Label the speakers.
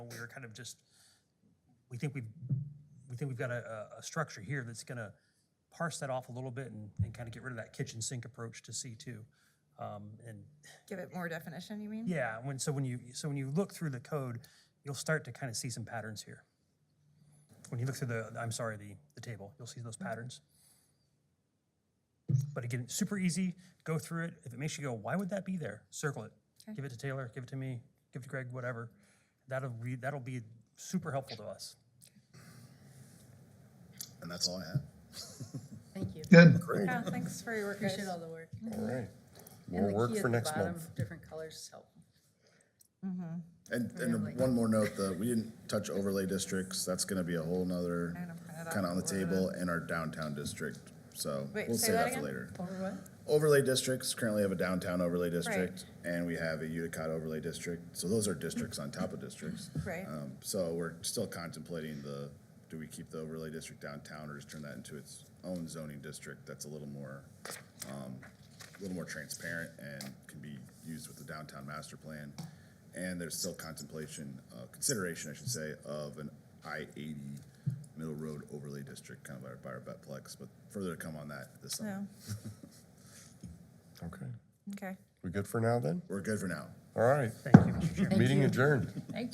Speaker 1: we were kind of just, we think we've, we think we've got a, a- a structure here that's going to parse that off a little bit and, and kind of get rid of that kitchen sink approach to C2. Um, And
Speaker 2: Give it more definition, you mean?
Speaker 1: yeah, when, so when you, so when you look through the code, you'll start to kind of see some patterns here. When you look through the, I'm sorry, the, the table, you'll see those
Speaker 2: Mm-hmm.
Speaker 1: patterns. But again, super easy, go through it. If it makes you go, why would that be there? Circle it.
Speaker 2: Okay.
Speaker 1: Give it to Taylor, give it to me, give it to Greg, whatever. That'll be, that'll be super helpful to us.
Speaker 3: And that's all I have.
Speaker 4: Thank you.
Speaker 5: Good.
Speaker 3: Great.
Speaker 2: Yeah, Oh, thanks for your work, guys.
Speaker 4: Appreciate all the work.
Speaker 6: All right.
Speaker 4: And
Speaker 6: More
Speaker 4: the
Speaker 6: work
Speaker 4: key at
Speaker 6: for
Speaker 4: the
Speaker 6: next
Speaker 4: bottom,
Speaker 6: month.
Speaker 4: Different colors is helpful.
Speaker 3: And, and one more note, that we didn't touch overlay districts, that's gonna be a whole nother
Speaker 2: Kinda print it out
Speaker 3: kinda on the
Speaker 2: for the-
Speaker 3: table in our downtown district, so
Speaker 2: Wait,
Speaker 3: we'll
Speaker 2: say
Speaker 3: save
Speaker 2: that
Speaker 3: that for
Speaker 2: again?
Speaker 3: later.
Speaker 4: Over what?
Speaker 3: Overlay districts, currently have a downtown overlay district, and we have a Utica overlay district, so those are districts on top of districts.
Speaker 2: Right.
Speaker 3: Um, so we're still contemplating the, do we keep the overlay district downtown or just turn that into its own zoning district that's a little more, um, a little more transparent and can be used with the downtown master plan. And there's still contemplation, uh, consideration, I should say, of an I eighty Middle Road overlay district, kind of our- by our Betplex, but further to come on that this summer.
Speaker 2: No,
Speaker 6: Okay.
Speaker 2: okay.
Speaker 6: We good for now then?
Speaker 3: We're good for now.
Speaker 6: All right.
Speaker 1: Thank you, Mr. Chairman.
Speaker 6: Meeting adjourned.